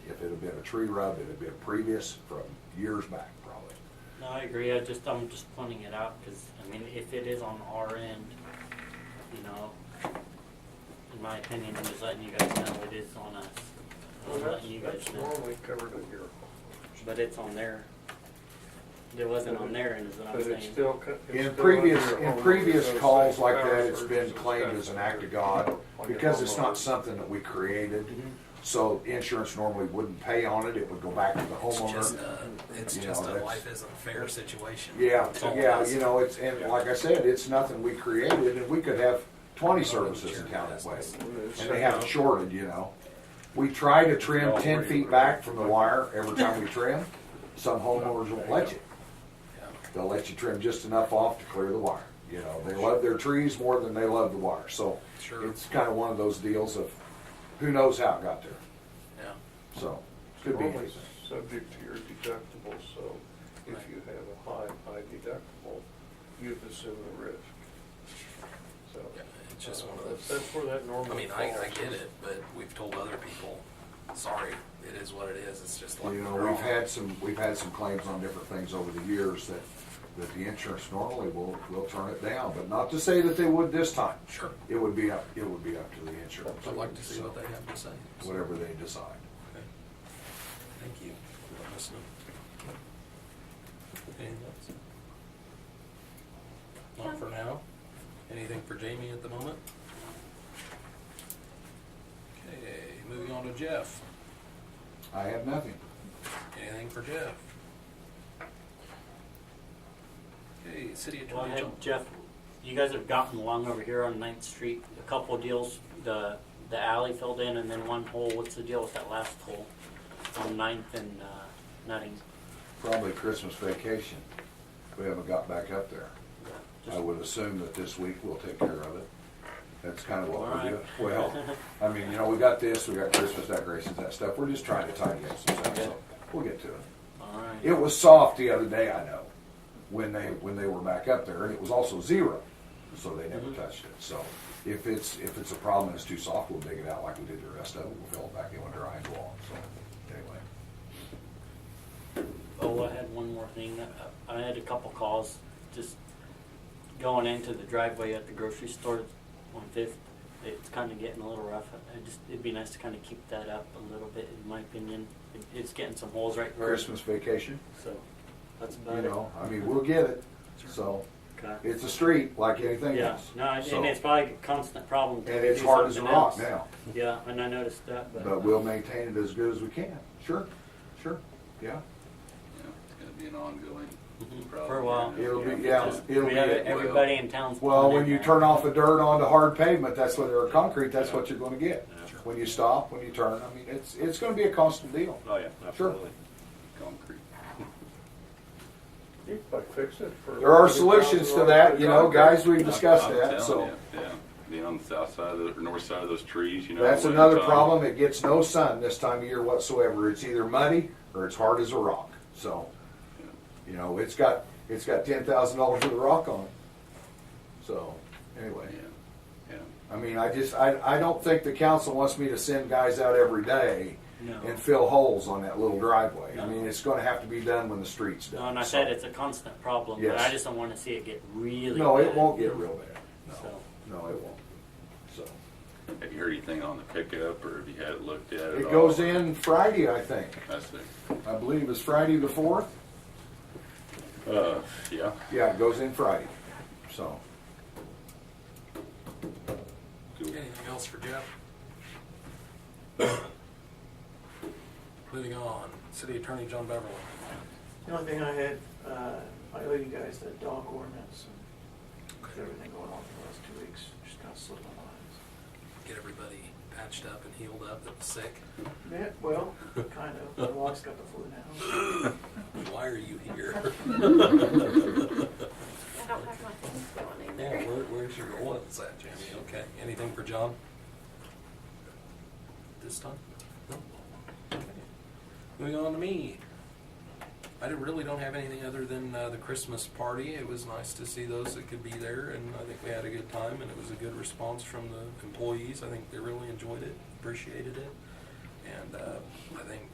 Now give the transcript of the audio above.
it'd have been a tree rub, it'd have been previous from years back probably. No, I agree, I just, I'm just pointing it out, cause, I mean, if it is on our end, you know, in my opinion, I'm just letting you guys know it is on us. Well, I'm that's, letting you guys that's know, normally covered in your, but it's on their, it wasn't on their end, is what but I'm it's saying. still. co- it's In still previous, under in homeowners previous association calls like that, powers it's been versus claimed as an act of God on your because it's not homeowners. something that we created. Mhm. So insurance normally wouldn't pay on it, it would go back to the It's just uh, homeowner. a, it's You know, just a that's- life isn't fair situation. Yeah, It's all yeah, us. you know, it's, and like I said, it's nothing we created and we could have twenty services in town that way. And they haven't shorted, you know. We try to trim ten feet back from the wire every time we trim. Some homeowners won't let you. They'll let you trim just enough off to clear the wire. You know, they love their trees more than they love the wire, so Sure. it's kind of one of those deals of who knows how it got there. Yeah. So It's could be normally anything. subject to your deductible, so if Right. you have a high, high deductible, you've assumed the risk. So. Yeah, It's just uh, one that's- of those. That's where that I normally mean, falls. I, I get it, but we've told other people, sorry, it is what it is. It's just like. You know, we're we've all- had some, we've had some claims on different things over the years that, that the insurance normally will, will turn it down, but not to say that they would this time. Sure. It would be up, it would be up to the insurance. I'd like to see so, what they have to say. Whatever they decide. Okay. Thank you for listening. Anything else? Not for now. Anything for Jamie at the moment? Okay, moving on to Jeff. I have nothing. Anything for Jeff? Okay, city Well, I attorney. John- had Jeff, you guys have gotten along over here on Ninth Street, a couple deals, the, the alley filled in and then one hole, what's the deal with that last hole? On Ninth and, uh, Nutting. Probably Christmas vacation. We haven't got back up there. I would assume that this week we'll take care of it. That's kind of what we do. Well, I mean, you know, we got this, we got Christmas decorations, that stuff. We're just trying to tidy up some stuff, so we'll get to it. Alright. It was soft the other day, I know, when they, when they were back up there, and it was also zero, so they never Mhm. touched it. So if it's, if it's a problem and it's too soft, we'll dig it out like we did the rest of it, we'll fill it back in when dry and go on, so, anyway. Oh, I had one more thing. I I had a couple calls just going into the driveway at the grocery store on Fifth. It's kind of getting a little rough. I just, it'd be nice to kind of keep that up a little bit, in my opinion. It- It's getting some holes right where, Christmas vacation, so that's about you it. know, I mean, we'll get it, so, Okay. it's a street like anything Yeah, else. no, and So- and it's probably a constant problem. till And we it's do hard as a something rock else. now, Yeah, and I noticed that, but. but we'll maintain it as good as we can, sure, sure, Yeah, yeah. it's gonna be an ongoing Mhm, problem. For a while. It'll be- yeah, Just- it'll we be have a- Everybody in town's. Well, pulling when in you there. turn off the dirt onto hard pavement, that's what, or concrete, that's what you're gonna get. Sure. When you stop, when you turn, I mean, it's, it's gonna be a constant deal. Oh, yeah, absolutely. Concrete. You can fix it for. There are solutions to that, you know, guys, we've discussed I'm that, telling so. you, Yeah, being on the south side of the, or north side of those trees, you know. That's when another time- problem, it gets no sun this time of year whatsoever, it's either muddy or it's hard as a rock, so. You know, it's got, it's got ten thousand dollars worth of rock on it. So, anyway, Yeah, yeah. I mean, I just, I, I don't think the council wants me to send guys out every day No. and fill holes on that little driveway. I No. mean, it's gonna have to be done when the street's No, done. and I uh, so- said it's a constant problem, but I Yes. just don't wanna see it get really. No, it bad. won't get real bad. So, No, no, it won't. So, Have you heard anything on the pickup, or have you had it looked at at it all? goes in Friday, I think. I see. I believe it's Friday the fourth. Uh, yeah, Yeah, it goes in Friday. So, cool. Anything else for Jeff? Moving on, city attorney John Beverly. The only thing I had, uh, I owe you guys that dog ordinance and with everything going on for the last two weeks, just kind of slipped my mind. Get everybody patched up and healed up that was sick. Yeah, well, kind of, my dog's got the flu now. Why are you here? I don't have my things going Yeah, either. where, where's your oils at, Jamie? Okay, anything for John? This time? No. Okay. Moving on to me. I don't- really don't have anything other than uh, the Christmas party. It was nice to see those that could be there, and I think we had a good time, and it was a good response from the employees. I think they really enjoyed it, appreciated it, and uh, I think